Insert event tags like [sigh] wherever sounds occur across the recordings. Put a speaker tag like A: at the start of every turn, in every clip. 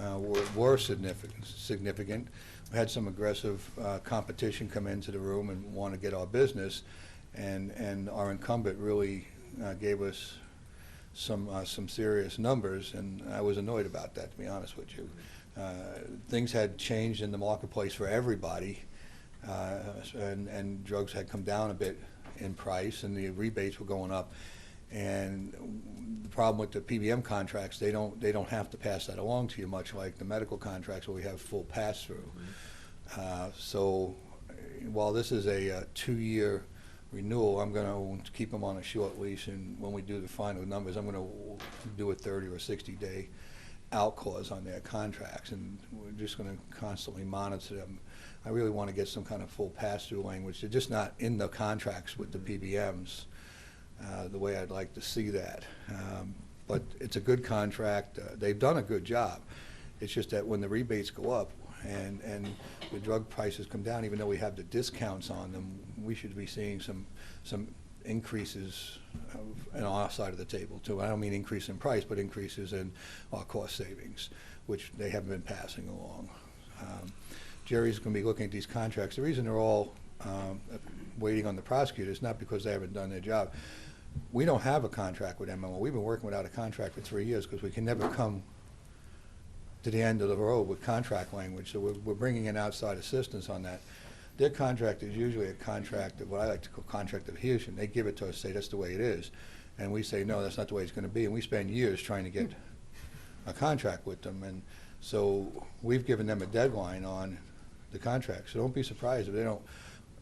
A: uh, were were significant. significant. We had some aggressive uh, competition come into the room and want to get our business, and, and our incumbent really uh, gave us some, uh, some serious numbers, and I was annoyed about that, to be honest with you. Uh, Things had changed in the marketplace for everybody, uh, and, and drugs had come down a bit in price, and the rebates were going up. And the problem with the PBM contracts, they don't, they don't have to pass that along to you, much like the medical contracts where we have full pass-through. Uh, So uh, while this is a uh, two-year renewal, I'm going to keep them on a short leash, and when we do the final numbers, I'm going to do a 30 or 60-day out clause on their contracts, and we're just going to constantly monitor them. I really want to get some kind of full pass-through language. They're just not in the contracts with the PBMs, uh, the way I'd like to see that. Um, But it's a good contract. Uh, They've done a good job. It's just that when the rebates go up and, and the drug prices come down, even though we have the discounts on them, we should be seeing some, some increases of- on our side of the table too. I don't mean increase in price, but increases in our cost savings, which they haven't been passing along. Um, Jerry's going to be looking at these contracts. The reason they're all um, waiting on the prosecutor is not because they haven't done their job. We don't have a contract with MMO. We've been working without a contract for three years because we can never come to the end of the road with contract language, so we're, we're bringing in outside assistance on that. Their contract is usually a contract of, what I like to call contract adhesion, they give it to us, say that's the way it is, and we say, no, that's not the way it's gonna be, and we spend years trying to get a contract with them, and so we've given them a deadline on the contract, so don't be surprised if they don't,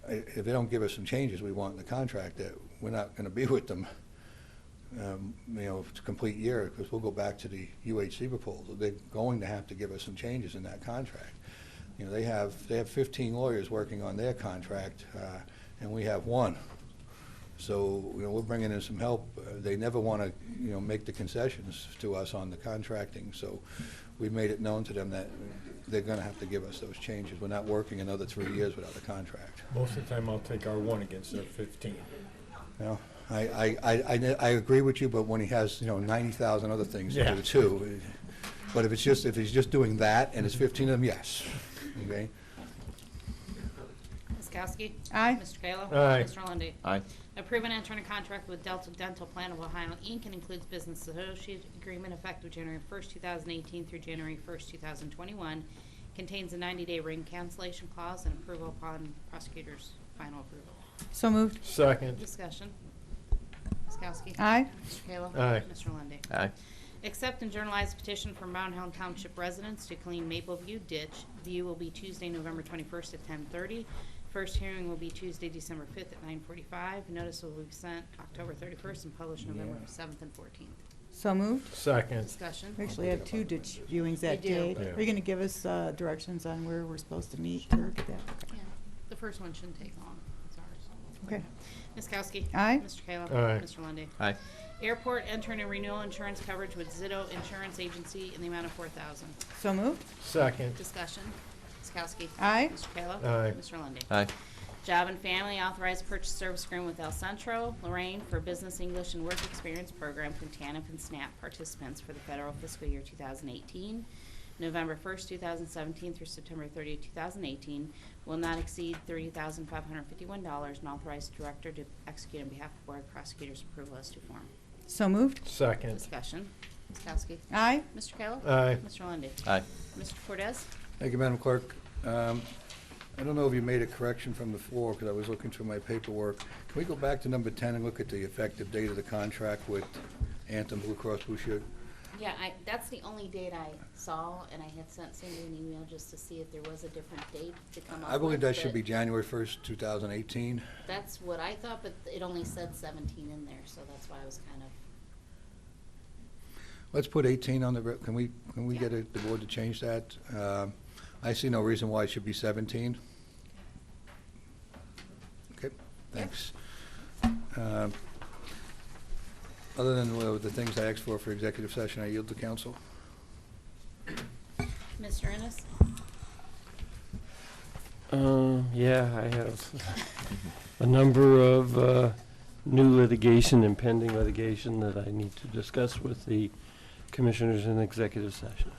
A: i- if they don't give us some changes we want in the contract, that we're not gonna be [laughs] with them um, you know, to complete year, because we'll go back to the UHC proposal. They're going to have to give us some changes in that contract. You know, they have, they have 15 lawyers working on their contract, uh, and we have one. So, you know, we're bringing in some help. Uh, They never want to, you know, make the concessions to us on the contracting, so we made it known to them that they're going to have to give us those changes. We're not working another three years without a contract.
B: Most of the time, I'll take our one against their fifteen.
A: No, I, I, I, I ne- I agree with you, but when he has, you know, ninety thousand other things to
B: Yeah.
A: do too. But if it's just, if he's just doing that and it's fifteen of them, yes, okay?
C: Ms. Kowski?
D: Aye.
C: Mr. Kayla?
B: Aye.
C: Mr. Lundey?
E: Aye.
C: Approve and enter in a contract with Delta Dental Plan of Ohio, Inc., and includes business associate agreement effective January 1st, 2018 through January 1st, 2021. Contains a 90-day ring cancellation clause and approval upon prosecutor's final approval.
D: So moved.
B: Second,
C: Discussion. Ms. Kowski?
D: Aye.
C: Mr. Kayla?
B: Aye.
C: Mr. Lundey?
E: Aye.
C: Accept and journalize petition from Mount Helen Township residents to clean Maple View ditch. View will be Tuesday, November 21st at 10:30. First hearing will be Tuesday, December 5th at 9:45. Notice will be sent October 31st and published November 7th and 14th.
D: So moved.
B: second,
C: Discussion.
D: We actually had two ditch viewings that
C: We do.
D: day.
B: Yeah.
D: Are you going to give us uh, directions on where we're supposed to meet? or get that?
C: Yeah, The first one shouldn't take long. It's ours.
D: Okay.
C: Ms. Kowski.
D: Aye.
C: Mr. Kayla.
B: Aye.
C: Mr. Lundy.
E: Aye.
C: Airport entering a renewal insurance coverage with Zito Insurance Agency in the amount of 4000
D: So moved.
B: second,
C: Discussion. Ms. Kowski.
D: Aye.
C: Mr. Kayla.
B: Aye.
C: Mr. Lundy.
E: Aye.
C: Job and Family authorized purchase service agreement with El Centro, Lorraine for Business English and Work Experience Program from TANF and SNAP participants for the federal fiscal year 2018, November 1st, 2017 through September 30th, 2018, will not exceed $30,551 and authorized director to execute on behalf of Board Prosecutor's approval as to form.
D: So moved.
B: second.
C: Discussion. Ms. Kowski.
D: Aye.
C: Mr. Kayla.
B: Aye.
C: Mr. Lundey.
E: Aye.
C: Mr. Cortez.
A: Thank you, Madam Clerk. Um, I don't know if you made a correction from the floor, because I was looking through my paperwork. Can we go back to number ten and look at the effective date of the contract with Anthem Blue Cross Blue Shield?
C: Yeah, I, that's the only date I saw, and I had sent Cindy an email just to see if there was a different date to come up
A: I believe
C: with,
A: that should
C: but
A: be January first, two thousand eighteen.
C: That's what I thought, but it only said seventeen in there, so that's why I was kind of,
A: Let's put 18 on the, re- can we, can we
C: Yeah.
A: get a- the board to change that? Um, I see no reason why it should be 17. Okay, thanks. Um, Other than uh, the things I asked for for executive session, I yield to council.
C: Mr. Ennis?
F: Um, yeah, I have a number of, uh, new litigation and pending litigation that I need to discuss with the commissioners in executive session.